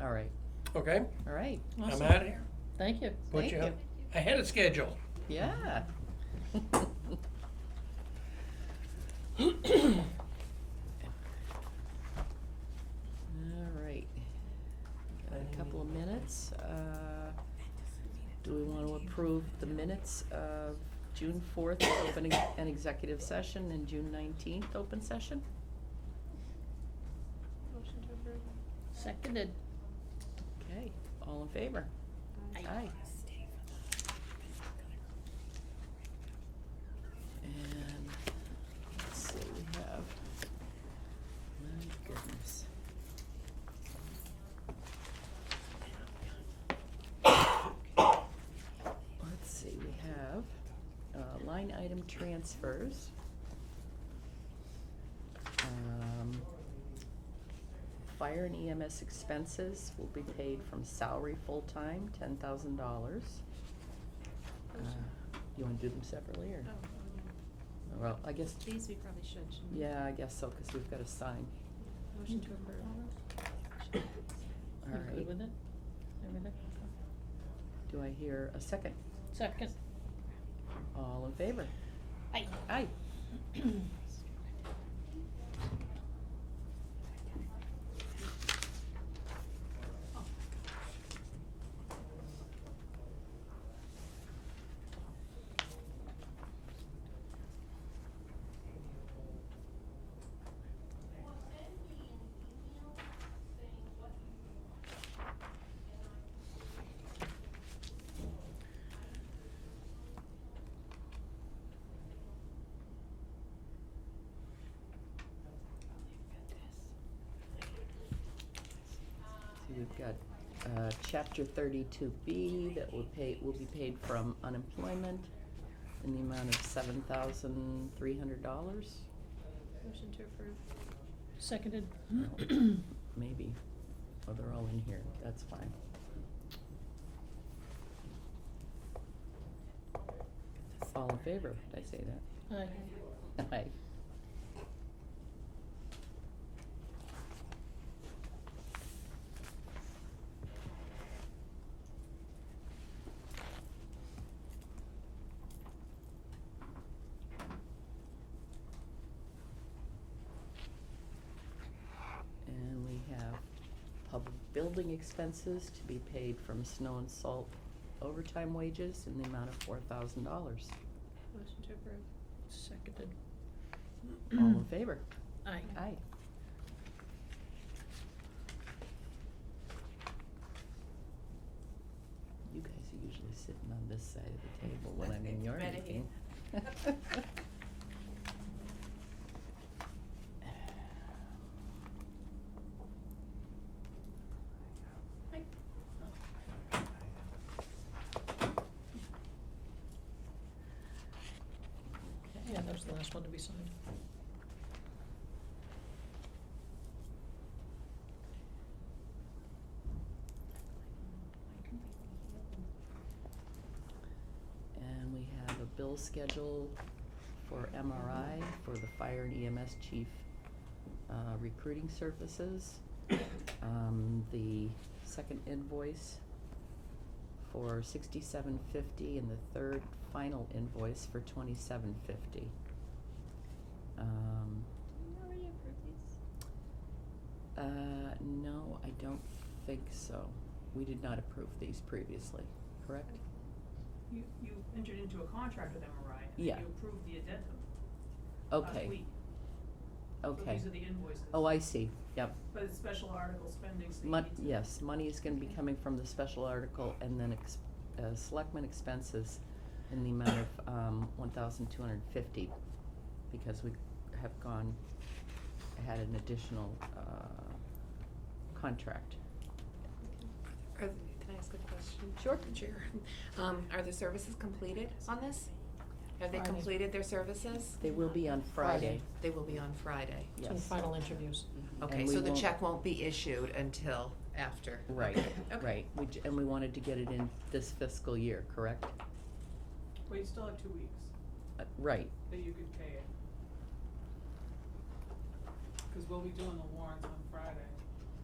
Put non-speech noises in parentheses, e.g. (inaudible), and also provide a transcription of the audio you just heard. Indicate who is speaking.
Speaker 1: All right,
Speaker 2: Okay,
Speaker 1: all right.
Speaker 2: I'm
Speaker 3: Awesome.
Speaker 2: out of here.
Speaker 1: Thank you.
Speaker 2: Put
Speaker 1: Thank
Speaker 2: you ahead of schedule.
Speaker 1: Yeah. (coughs) All right. Got a couple of minutes. Uh, Do we want to approve the minutes of June fourth, opening an executive session, and June nineteenth, open session?
Speaker 4: Motion to approve.
Speaker 3: Seconded.
Speaker 1: Okay, all in favor?
Speaker 3: Aye.
Speaker 1: Aye. And let's see, we have, my goodness. Let's see, we have uh, line item transfers. Um, Fire and EMS expenses will be paid from salary full-time, ten thousand dollars. Uh, You wanna do them separately, or?
Speaker 4: Oh, um,
Speaker 1: Well, I guess,
Speaker 4: These we probably should, shouldn't we?
Speaker 1: yeah, I guess so, because we've got to sign.
Speaker 4: Motion to approve.
Speaker 1: All
Speaker 3: You good
Speaker 1: right.
Speaker 3: with it? Everything?
Speaker 1: Do I hear a second?
Speaker 3: Second.
Speaker 1: All in favor?
Speaker 3: Aye.
Speaker 1: Aye. So we've got uh, Chapter 32B that will pay, will be paid from unemployment in the amount of $7,300,
Speaker 4: Motion to approve.
Speaker 3: Seconded.
Speaker 1: maybe. Oh, they're all in here, that's fine. All in favor, did I say that?
Speaker 3: Aye.
Speaker 1: Aye. And we have public building expenses to be paid from snow and salt overtime wages in the amount of four thousand dollars.
Speaker 4: Motion to approve.
Speaker 3: Seconded.
Speaker 1: All in favor?
Speaker 3: Aye.
Speaker 1: Aye. You guys are usually sitting on this side of the table when I'm in your
Speaker 5: Right here.
Speaker 1: meeting. (laughs)
Speaker 3: Yeah, that was the last one to be signed.
Speaker 1: And we have a bill schedule for MRI for the fire and EMS chief uh, recruiting services. Um, The second invoice for sixty-seven fifty and the third final invoice for twenty-seven fifty. Um,
Speaker 4: Did we already approve these?
Speaker 1: uh, no, I don't think so. We did not approve these previously, correct?
Speaker 5: You, you entered into a contract with MRI, and
Speaker 1: Yeah.
Speaker 5: then you approved the addendum last
Speaker 1: Okay,
Speaker 5: week. So
Speaker 1: okay.
Speaker 5: these are the invoices.
Speaker 1: Oh, I see, yep.
Speaker 5: But it's special article spending, so you
Speaker 1: Mon-
Speaker 5: need to.
Speaker 1: yes, money is gonna be
Speaker 4: Okay.
Speaker 1: coming from the special article and then ex- uh, selectmen expenses in the amount of, um, one thousand two hundred and fifty, because we have gone, had an additional, uh, contract.
Speaker 6: Are, th- can I ask a question?
Speaker 1: Sure.
Speaker 6: Chair, um, are the services completed on this? Have they
Speaker 3: Friday.
Speaker 6: completed their services?
Speaker 1: They will be on Friday,
Speaker 3: Friday.
Speaker 6: They will be on Friday.
Speaker 1: yes.
Speaker 3: So the final interviews.
Speaker 6: Okay,
Speaker 1: And we
Speaker 6: so the
Speaker 1: won't-
Speaker 6: check won't be issued until after.
Speaker 1: Right,
Speaker 6: Okay.
Speaker 1: right, we, j- and we wanted to get it in this fiscal year, correct?
Speaker 5: Well, you still have two weeks
Speaker 1: Uh, right,
Speaker 5: that you could pay it. Cause we'll be doing the warrants on Friday.